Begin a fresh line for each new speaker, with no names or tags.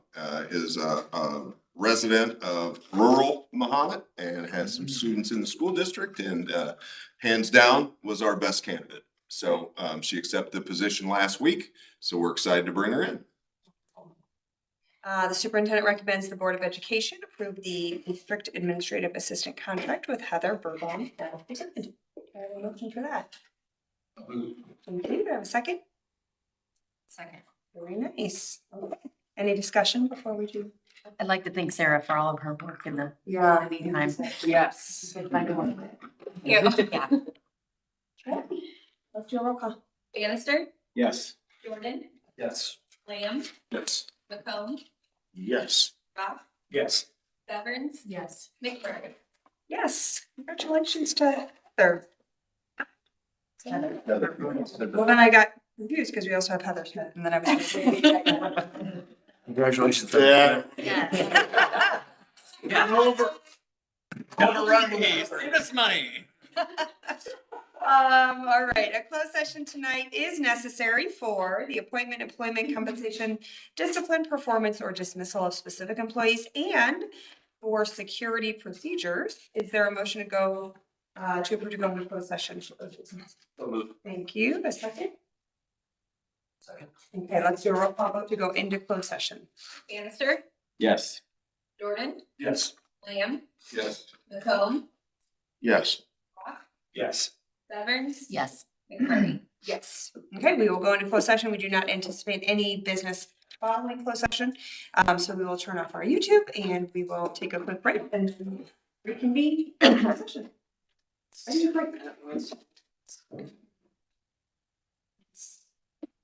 uh, is a, a resident of rural Mahomet and has some students in the school district and, uh, hands down was our best candidate. So, um, she accepted the position last week, so we're excited to bring her in.
Uh, the superintendent recommends the Board of Education approve the district administrative assistant contract with Heather Burbaum. as presented. Do I have a motion for that? Thank you. Do I have a second?
Second.
Very nice. Any discussion before we do?
I'd like to thank Sarah for all of her work in the
Yeah.
meantime.
Yes.
Yeah.
Let's do a roll call.
Bannister,
Yes.
Jordan,
Yes.
Lamb,
Yes.
McComb,
Yes.
Bob,
Yes.
Severns,
Yes.
McBride.
Yes, congratulations to Heather. Well,
Congratulations.
then I got confused because we also have Heather Smith and then I was. gonna say-
Yeah.
Yes.
money.
Um, all right, a closed session tonight is necessary for the appointment, employment, compensation, discipline, performance, or dismissal of specific employees and for security procedures. Is there a motion to go, uh, to approve to go into closed session? Thank you. A second? Second. Okay, let's do a roll call vote to go into closed session.
Bannister,
Yes.
Jordan,
Yes.
Lamb,
Yes.
McComb,
Yes.
Yes.
Severns.
Yes.
McBride.
Yes. Okay, we will go into closed session. We do not anticipate any business following closed session. Um, so we will turn off our YouTube and we will take a quick break and reconvene. in closed session. Ready to break?